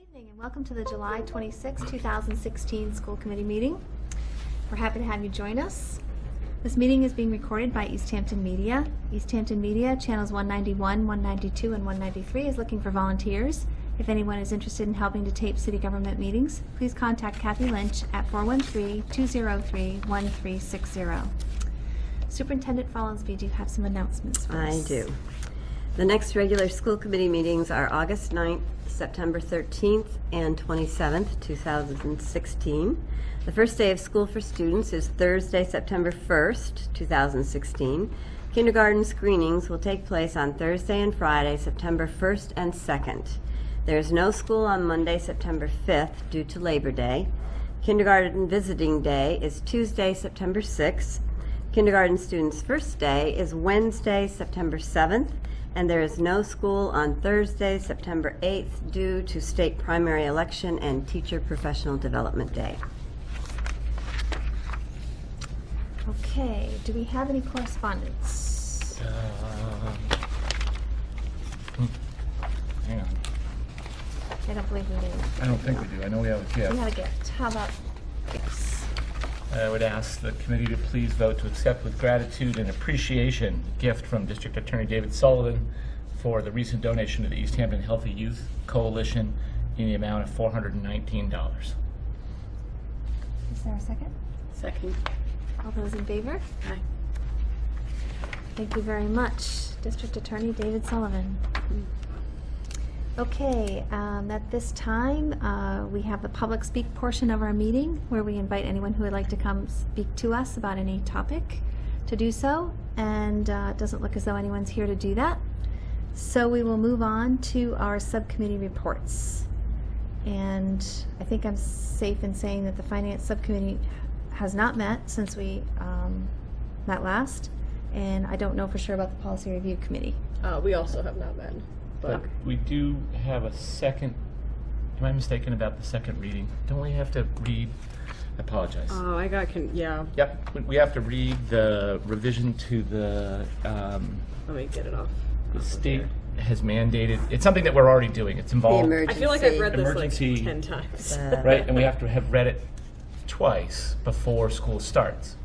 evening and welcome to the July 26, 2016 School Committee meeting. We're happy to have you join us. This meeting is being recorded by East Hampton Media. East Hampton Media, channels 191, 192, and 193 is looking for volunteers. If anyone is interested in helping to tape city government meetings, please contact Kathy Lynch at 413-203-1360. Superintendent Follinsby, do you have some announcements for I us? do. The next regular school committee meetings are August 9th, September 13th, and 27th, 2016. The first day of school for students is Thursday, September 1st, 2016. Kindergarten screenings will take place on Thursday and Friday, September 1st and 2nd. There is no school on Monday, September 5th due to Labor Day. Kindergarten visiting day is Tuesday, September 6th. Kindergarten students' first day is Wednesday, September 7th, and there is no school on Thursday, September 8th, due to state primary election and Teacher Professional Development Day. Okay, do we have any correspondence? Um, hmm, Hang on. I don't believe we do. I don't think we do. I know we have a We gift. had a gift. How about gifts? I would ask the committee to please vote to accept with gratitude and appreciation the gift from District Attorney David Sullivan for the recent donation to the East Hampton Healthy Youth Coalition in the amount of $419. Is there a second? Second. All those in favor? Aye. Thank you very much, District Attorney David Sullivan. Okay, um, at this time, uh, we have the public speak portion of our meeting where we invite anyone who would like to come speak to us about any topic to do so. And uh, it doesn't look as though anyone's here to do that. So we will move on to our subcommittee reports. And I think I'm safe in saying that the Finance Subcommittee has not met since we um, met last. And I don't know for sure about the Policy Review Committee. Uh, we also have not met, but But we do have a second, am I mistaken about the second reading? Don't we have to read? I apologize. oh, I got con- yeah. Yep, we- we have to read the revision to the um, Let me get it off. The state has mandated, it's something that we're already doing, it's involved, The I feel like I've read emergency- this Emergency- like ten times. right? And we have to have read it twice before school starts,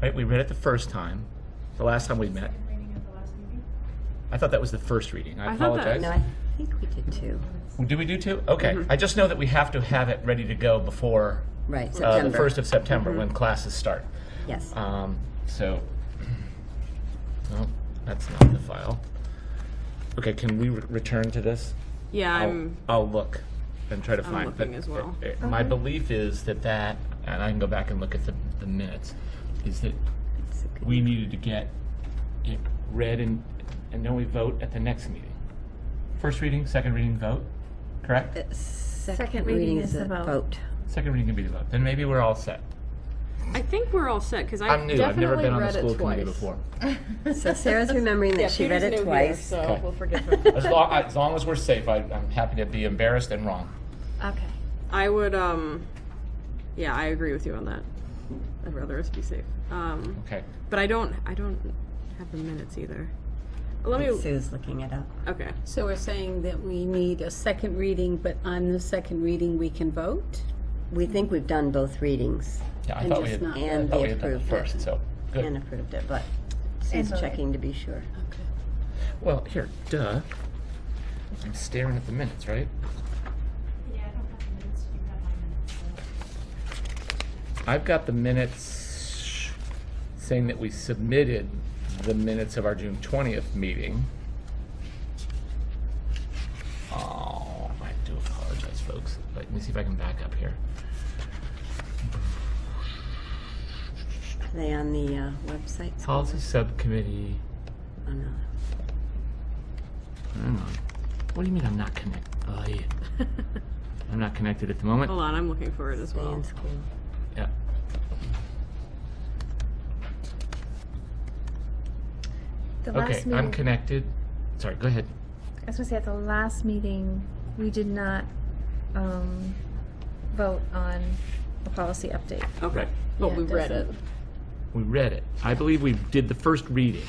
right? We read it the first time, the last time we met. I thought that was the first reading, I I thought that- apologize. No, I think we did two. Well, Do we do two? Okay, I just know that we have to have it ready to go before Right, uh, the September. first of September, when classes start. Yes. Um, so, no, that's not the file. Okay, can we re- return to this? yeah, I'll, I'm. I'll look and try to find. but looking as well. it- it- My belief is that that, and I can go back and look at the, the minutes, is that we needed to get it read and, and then we vote at the next meeting. First reading, second reading, vote, correct? Second reading is a vote. Second reading can be the vote, then maybe we're all set. I think we're all set because I Oh. I'm new, I've never definitely been on the read it school committee twice. before. So Sarah's remembering that she read Peter's new it here, twice. so Okay. we'll forgive him. As long, as long as we're safe, I, I'm happy to be embarrassed and wrong. Okay. I would um, yeah, I agree with you on that. I'd rather us be safe. Um, Okay, but I don't, I don't have the minutes either. Let me. Sue's looking it up. Okay. So we're saying that we need a second reading, but on the second reading, we can vote? We think we've done both readings yeah, I And thought we just had, not- I and thought we we had done it approved it. first, so, And good. approved it, but Sue's voted. checking to be sure. Well, here, duh. I'm staring at the minutes, right? Yeah, I don't have the minutes, you have my minutes. I've got the minutes saying that we submitted the minutes of our June twentieth meeting. Oh, I do apologize, folks. Let me see if I can back up here. Are they on the uh, website? Policy Subcommittee, Oh, no. hang on. What do you mean I'm not connect, oh, yeah. I'm not connected at the moment. Hold on, I'm looking for it as Stay well. in school. Yeah. The Okay, last I'm meeting, connected. Sorry, go ahead. I was gonna say, at the last meeting, we did not, um, vote on the policy update. Okay. Right. Well, Yeah, we read it. doesn't- We read it. I believe we did the first reading.